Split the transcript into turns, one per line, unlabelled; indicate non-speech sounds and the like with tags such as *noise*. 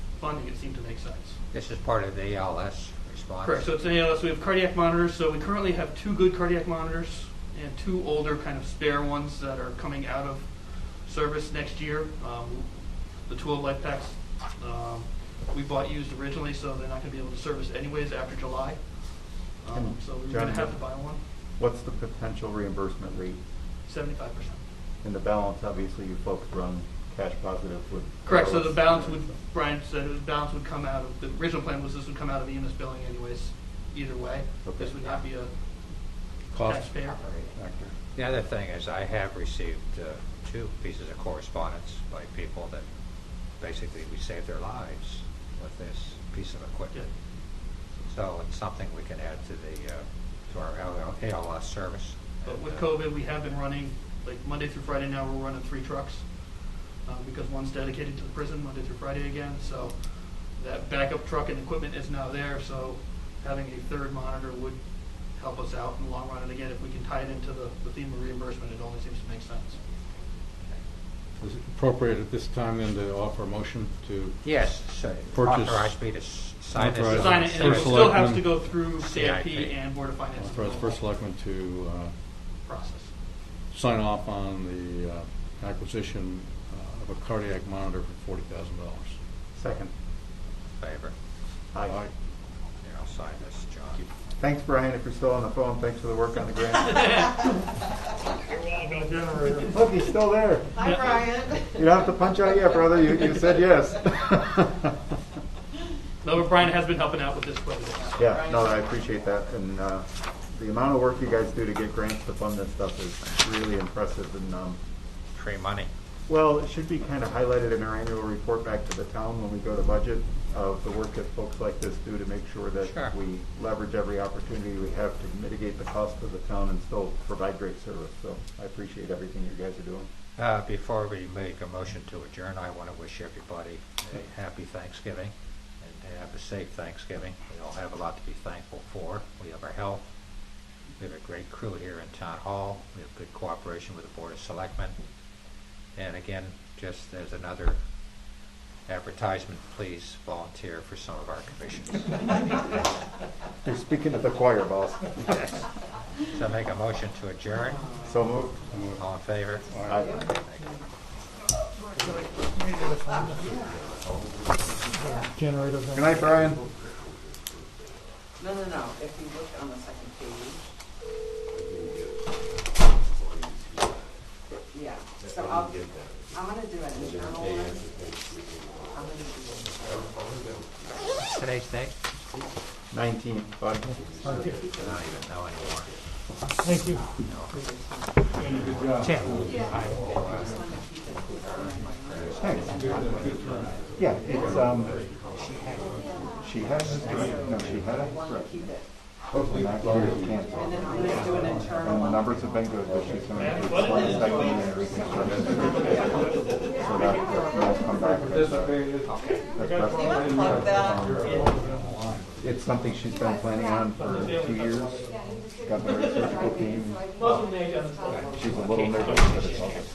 funding, it seemed to make sense.
This is part of the ALS response.
Correct. So it's an ALS. We have cardiac monitors. So we currently have two good cardiac monitors and two older kind of spare ones that are coming out of service next year. Um, the two old life packs um, we bought used originally, so they're not going to be able to service anyways after July. Um, so we were going to have to buy one.
What's the potential reimbursement rate?
Seventy-five percent.
And the balance, obviously, you folks run cash positive with.
Correct. So the balance would
So-
Brian said the balance would come out of the original plan was this would come out of EMS billing anyways. Either way, this
Okay.
would not be a
Cost.
taxpayer.
Actor.
The other thing is, I have received uh, two pieces of correspondence by people that basically we saved their lives with this piece of
Yeah.
equipment. So it's something we can add to the, uh, to our ALS service.
But with
And, uh,
COVID, we have been running, like Monday through Friday now, we're running three trucks. uh, Because one's dedicated to the prison, Monday through Friday again, so that backup truck and equipment is now there, so having a third monitor would help us out in the long run. And again, if we can tie it into the, the theme of reimbursement, it only seems to make sense.
Is it appropriate at this time then to offer a motion to,
Yes, so
Purchase-
authorize me to s- sign this. uh,
Authorize-
Sign it, and it
First
still has
selectman.
to go through CIP
CIP.
and Board of Finance.
uh, for the first selectman to
Process.
uh, sign off on the uh, acquisition uh, of a cardiac monitor for forty thousand dollars?
Second.
Favor.
Aye.
Here, I'll sign this, John.
Thanks, Brian, if you're still on the phone, thanks for the work on
*laughs*
the grant. *laughs* Look, he's still there.
Hi, Brian.
You don't have to punch out yet, brother, you, you said yes. *laughs*
No, but Brian has been helping out with this quite a bit.
Yeah, no, I appreciate that, and, uh, the amount of work you guys do to get grants to fund this stuff is really impressive, and, um,
Free money.
Well, it should be kind of highlighted in our annual report back to the town when we go to budget of the work that folks like this do to make sure
Sure.
that we leverage every opportunity we have to mitigate the cost of the town and still provide great service. So I appreciate everything you guys are doing.
Uh, Before we make a motion to adjourn, I want to wish everybody a happy Thanksgiving and to have a safe Thanksgiving. We all have a lot to be thankful for. We have our health. We have a great crew here in Town Hall. We have good cooperation with the Board of Selectmen. And again, just as another advertisement, please volunteer for some of our commissions.
You're speaking to the choir, boss.
So make a motion to adjourn.
So moved.
All in favor?
Aye. Good night, Brian.
*laughs* No, no, no, if you look on the second page. Yeah, so I'll, I'm gonna do an internal one. I'm gonna do
Today's date?
Nineteen, bud.
Not even know anymore.
Thank you.
Tim?
Yeah, it's, um, she has, no, she had a stroke.
it, keep it,
Hopefully not serious cancer.
and then I'm gonna do an internal
And the
one.
numbers have been good, but she's going to take one second and reconstruct. So that, that'll come back. That's
wanna
best.
plug that?
It's something she's been planning on for two years. Got the right surgical team. She's a little nervous, but it's all good.